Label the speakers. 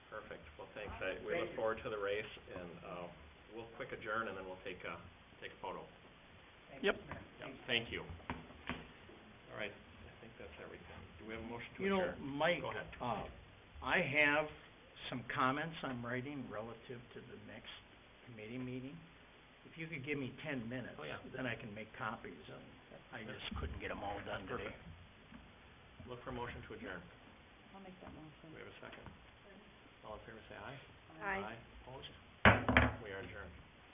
Speaker 1: we look
Speaker 2: Amazing.
Speaker 1: forward to the race, and, uh, we'll quick adjourn, and then we'll take a, take a photo.
Speaker 2: Thank
Speaker 3: Yep.
Speaker 2: you, Mayor.
Speaker 1: Yeah, thank you. All right, I think that's everything. Do we have a motion to
Speaker 3: You know,
Speaker 1: adjourn?
Speaker 3: Mike,
Speaker 1: Go ahead.
Speaker 3: uh, I have some comments I'm writing relative to the next committee meeting. If you could give me ten minutes,
Speaker 1: Oh, yeah.
Speaker 3: then I can make copies, and I just couldn't get them all done today.
Speaker 1: Perfect. Look for a motion to adjourn.
Speaker 2: I'll make that motion.
Speaker 1: Do we have a second? All in favor, say aye.
Speaker 2: Aye.
Speaker 1: Opposed? We are adjourned.